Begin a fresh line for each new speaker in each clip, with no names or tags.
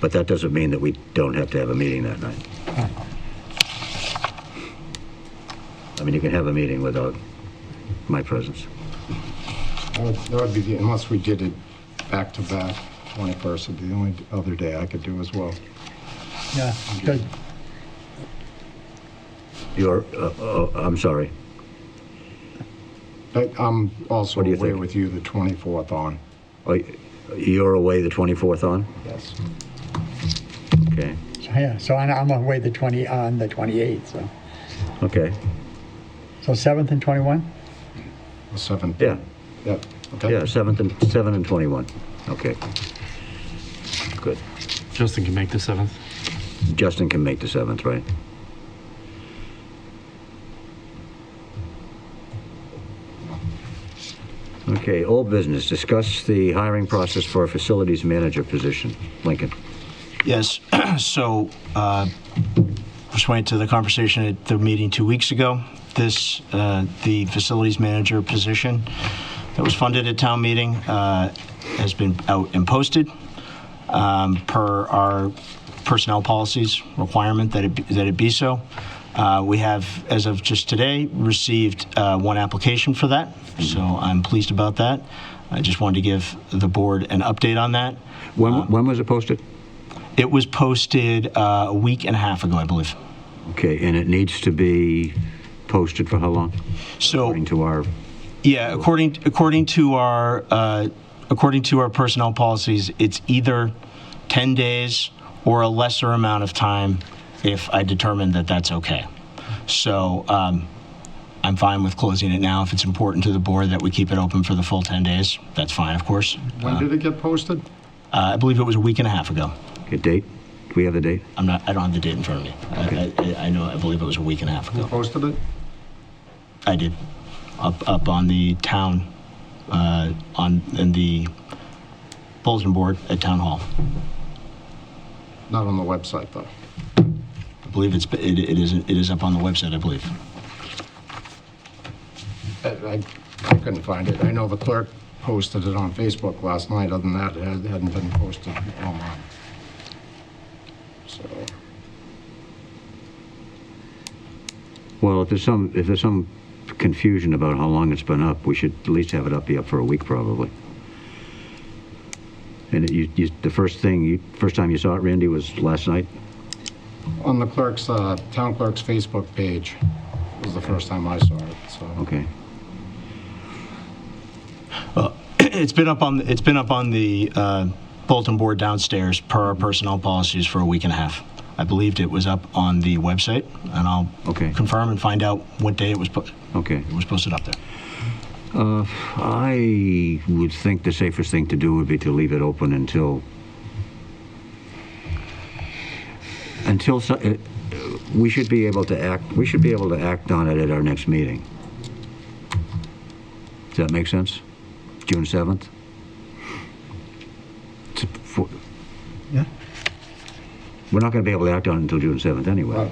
But that doesn't mean that we don't have to have a meeting that night. I mean, you can have a meeting without my presence.
That would- that would be, the unless we did it back to back, 21st would be the only other day I could do as well.
Yeah, good.
You're, uh, uh, I'm sorry.
But I'm also
What do you
away
think?
with you the 24th on.
Oh, You're away the 24th on?
Yes.
Okay,
So, Yeah, so I'm- I'm away the 20, on the 28th, so.
okay,
So 7th and 21?
The 7th.
yeah,
Yep. Okay.
yeah, 7th and, 7 and 21, okay. Good.
Justin can make the 7th.
Justin can make the 7th, right? Okay, old business, discuss the hiring process for a facilities manager position. Lincoln,
Yes, so uh, pursuant to the conversation at the meeting two weeks ago, this, uh, the facilities manager position that was funded at town meeting uh, has been out and posted um, per our personnel policies requirement that it, be- that it be so. Uh, We have, as of just today, received uh, one application for that, so I'm pleased about that. I just wanted to give the board an update on that.
when, when was it posted?
It was posted uh, a week and a half ago, I believe.
Okay, and it needs to be posted for how long?
So,
According to our,
yeah, according according to our uh, according to our personnel policies, it's either ten days or a lesser amount of time if I determine that that's okay. So, um, I'm fine with closing it now. If it's important to the board that we keep it open for the full ten days, that's fine, of course.
When did it get posted?
Uh, I believe it was a week and a half ago.
okay, date? Do we have the date?
I'm not. I don't have the date in front of me. I, I, I know. I believe it was a week and a half ago.
Posted it?
I did. Up up on the town, uh, on in the bulletin board at town hall.
Not on the website, though.
I believe it's it, it is it is up on the website. I believe.
I- I I couldn't find it. I know the clerk posted it on Facebook last night. Other than that, it hadn't- hadn't been posted online. So,
Well, if there's some, if there's some confusion about how long it's been up, we should at least have it up, be up for a week probably. And it- you, you, the first thing, you, first time you saw it, Randy, was last night?
on the clerk's, uh, town clerk's Facebook page was the first time I saw it, so.
Okay.
it's been up on it's been up on the uh, bulletin board downstairs per our personnel policies for a week and a half. I believed it was up on the website, and I'll
Okay.
confirm and find out what day it was put.
Okay.
It was posted up there.
I would think the safest thing to do would be to leave it open until, until, so- uh, we should be able to act, we should be able to act on it at our next meeting. Does that make sense? June 7th? It's for-
Yeah.
We're not going to be able to act on it until June 7th anyway.
Right.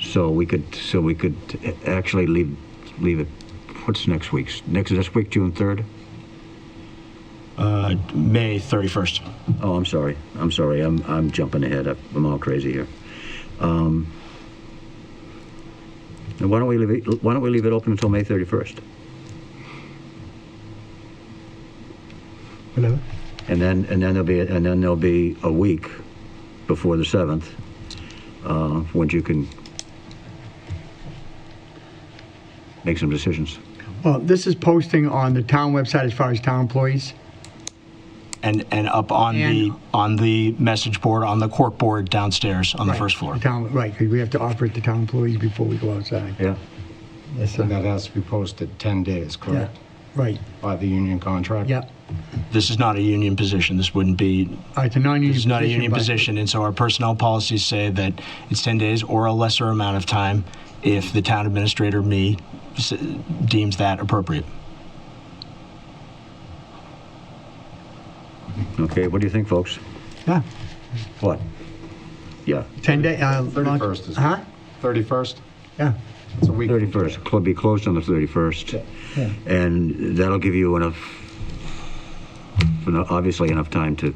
So we could, so we could actually leave, leave it, what's next week's? Next, is this week, June 3rd?
Uh, May thirty first.
Oh, I'm sorry. I'm sorry. I'm, I'm jumping ahead. I'm I'm all crazy here. Um, and why don't we leave it, why don't we leave it open until May 31st?
Hello?
And then, and then there'll be, and then there'll be a week before the 7th, uh, when you can make some decisions.
Well, this is posting on the town website as far as town employees.
and and up on the
And-
on the message board on the cork board downstairs on the first floor.
The town, right, 'cause we have to offer it to town employees before we go outside.
Yeah.
Yes,
And that has to be posted 10 days,
Yeah,
correct?
right,
By the union contract?
yeah.
This is not a union position. This wouldn't be.
Uh, It's a non-union position.
This is not a union
but-
position, and so our personnel policies say that it's ten days or a lesser amount of time if the town administrator me s- deems that appropriate.
Okay. What do you think, folks?
Yeah,
What? Yeah.
10 day. uh, launch-
31st is.
Huh?
31st?
Yeah,
It's a week. from today.
31st, club be closed on the 31st.
Yeah.
And that'll give you enough, eno- obviously enough time to